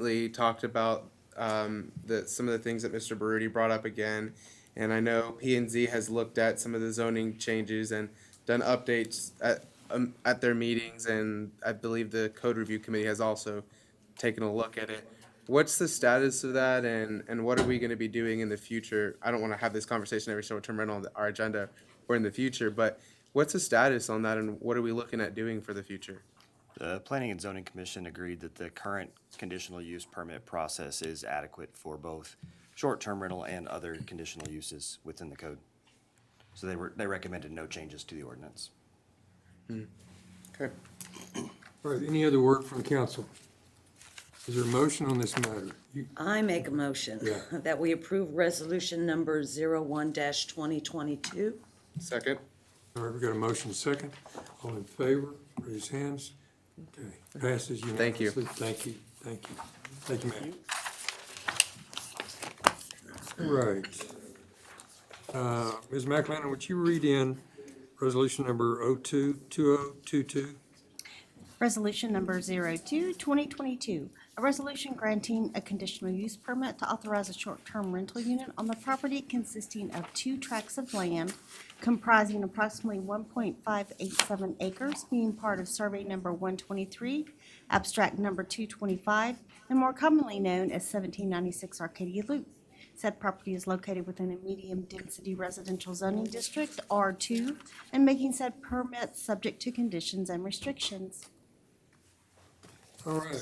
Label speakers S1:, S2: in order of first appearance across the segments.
S1: Lee talked about um, the, some of the things that Mr. Baruti brought up again. And I know P and Z has looked at some of the zoning changes and done updates at, um, at their meetings. And I believe the code review committee has also taken a look at it. What's the status of that and, and what are we gonna be doing in the future? I don't wanna have this conversation every short-term rental on our agenda or in the future, but what's the status on that and what are we looking at doing for the future?
S2: The Planning and Zoning Commission agreed that the current conditional use permit process is adequate for both short-term rental and other conditional uses within the code. So they were, they recommended no changes to the ordinance.
S1: Okay.
S3: All right, any other work from council? Is there a motion on this matter? You-
S4: I make a motion
S3: Yeah.
S4: that we approve resolution number zero-one dash twenty-twenty-two.
S1: Second?
S3: All right, we got a motion second. All in favor, raise hands. Okay, passes
S1: Thank you.
S3: unanimously. Thank you, thank you. Thank you, Matt. All right. Uh, Ms. McLennan, would you read in resolution number oh oh-two-two-oh-two-two?
S5: Resolution number 02, 2022, a resolution granting a conditional use permit to authorize a short-term rental unit on the property consisting of two tracts of land comprising approximately 1.587 acres, being part of survey number 123, abstract number 225, and more commonly known as 1796 Arcadia Loop. Said property is located within a medium-density residential zoning district, R2, and making said permit subject to conditions and restrictions.
S3: All right,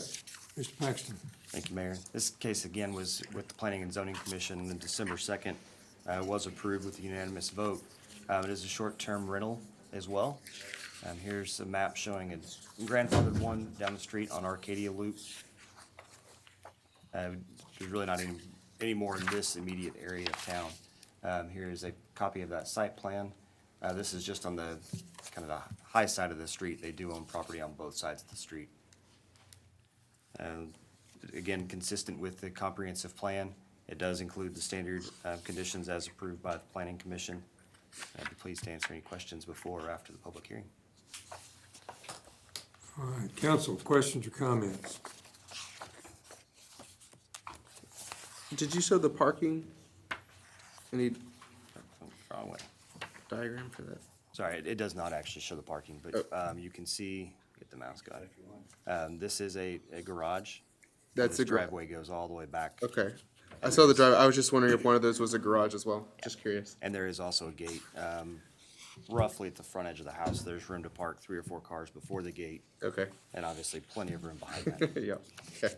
S3: Mr. Paxton.
S2: Thank you, Mayor. This case again was with the Planning and Zoning Commission on December 2nd. uh, was approved with a unanimous vote. Uh, It is a short-term rental as well. Um, Here's a map showing a grandfathered one down the street on Arcadia Loop. Uh, There's really not any, any more in this immediate area of town. Um, Here is a copy of that site plan. Uh, This is just on the, kind of the high side of the street. They do own property on both sides of the street. Um, Again, consistent with the comprehensive plan, it does include the standard uh, conditions as approved by the Planning Commission. I'd be pleased to answer any questions before or after the public hearing.
S3: All right, council, questions or comments?
S1: Did you show the parking? Any
S2: Oh, Wrong way.
S1: diagram for that?
S2: Sorry, it- it does not actually show the parking, but
S1: Oh.
S2: um, you can see, get the mouse got it. Um, This is a a garage.
S1: That's
S2: This
S1: a gra-
S2: Driveway goes all the way back.
S1: Okay. I saw the drive. I was just wondering if one of those was a garage as well. Just curious.
S2: And there is also a gate um, roughly at the front edge of the house. There's room to park three or four cars before the gate,
S1: Okay.
S2: and obviously plenty of room behind that.
S1: yeah. Okay.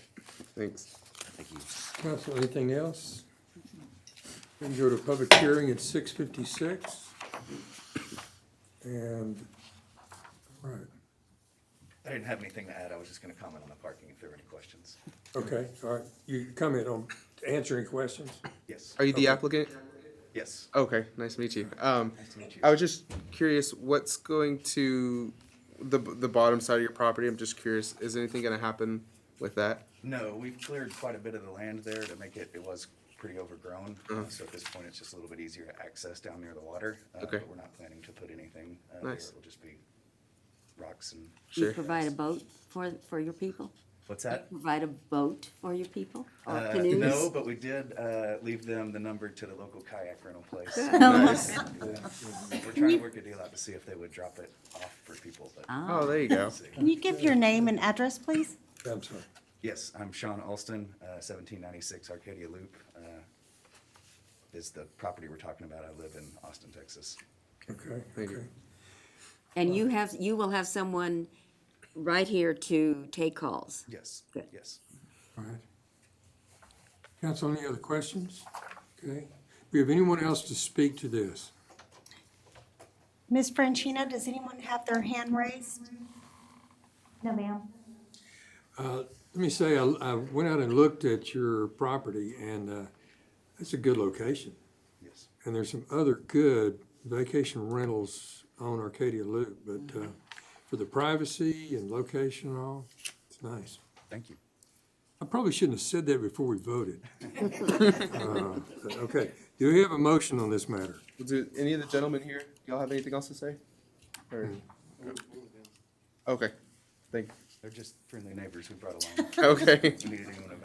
S1: Thanks.
S2: Thank you.
S3: Council, anything else? We can go to public hearing at six fifty-six. And, all right,
S6: I didn't have anything to add. I was just gonna comment on the parking if there were any questions.
S3: okay, all right, you comment on answering questions?
S6: Yes,
S1: Are you the applicant?
S6: yes.
S1: Okay. Nice to meet you. Um,
S6: Nice to meet you.
S1: I was just curious what's going to the the bottom side of your property. I'm just curious. Is anything going to happen with that?
S6: No, we've cleared quite a bit of the land there to make it, it was pretty overgrown.
S1: Uh-huh.
S6: uh, So at this point, it's just a little bit easier to access down near the water. uh,
S1: Okay.
S6: But we're not planning to put anything uh, there.
S1: Nice.
S6: It'll just be rocks and,
S7: Do you
S1: Sure.
S7: provide a boat for, for your people?
S6: what's that?
S7: Provide a boat for your people or
S6: Uh,
S7: canoes?
S6: No, but we did uh, leave them the number to the local kayak rental place. uh,
S1: Nice.
S6: We're trying to work a deal out to see if they would drop it off for people, but
S7: Ah.
S1: Oh, there you go.
S6: we'll see.
S5: Can you give your name and address, please?
S3: I'm sorry.
S6: Yes, I'm Sean Alston, uh, seventeen ninety-six Arcadia Loop, uh, is the property we're talking about. I live in Austin, Texas.
S3: Okay,
S1: Thank you.
S3: okay.
S7: And you have, you will have someone right here to take calls?
S6: Yes,
S7: Good.
S6: yes.
S3: All right. Council, any other questions? Okay. Do we have anyone else to speak to this?
S5: Ms. Franchina, does anyone have their hand raised? No, ma'am.
S3: Let me say, I, I went out and looked at your property and, uh, it's a good location.
S6: Yes.
S3: And there's some other good vacation rentals on Arcadia Loop, but, uh, for the privacy and location and all, it's nice.
S6: Thank you.
S3: I probably shouldn't have said that before we voted. Uh, Okay, do we have a motion on this matter?
S1: Do any of the gentlemen here? Y'all have anything else to say? Or...
S6: Mm-hmm.
S1: Okay. Thank.
S6: They're just friendly neighbors we brought along.
S1: Okay.
S6: Needed anyone to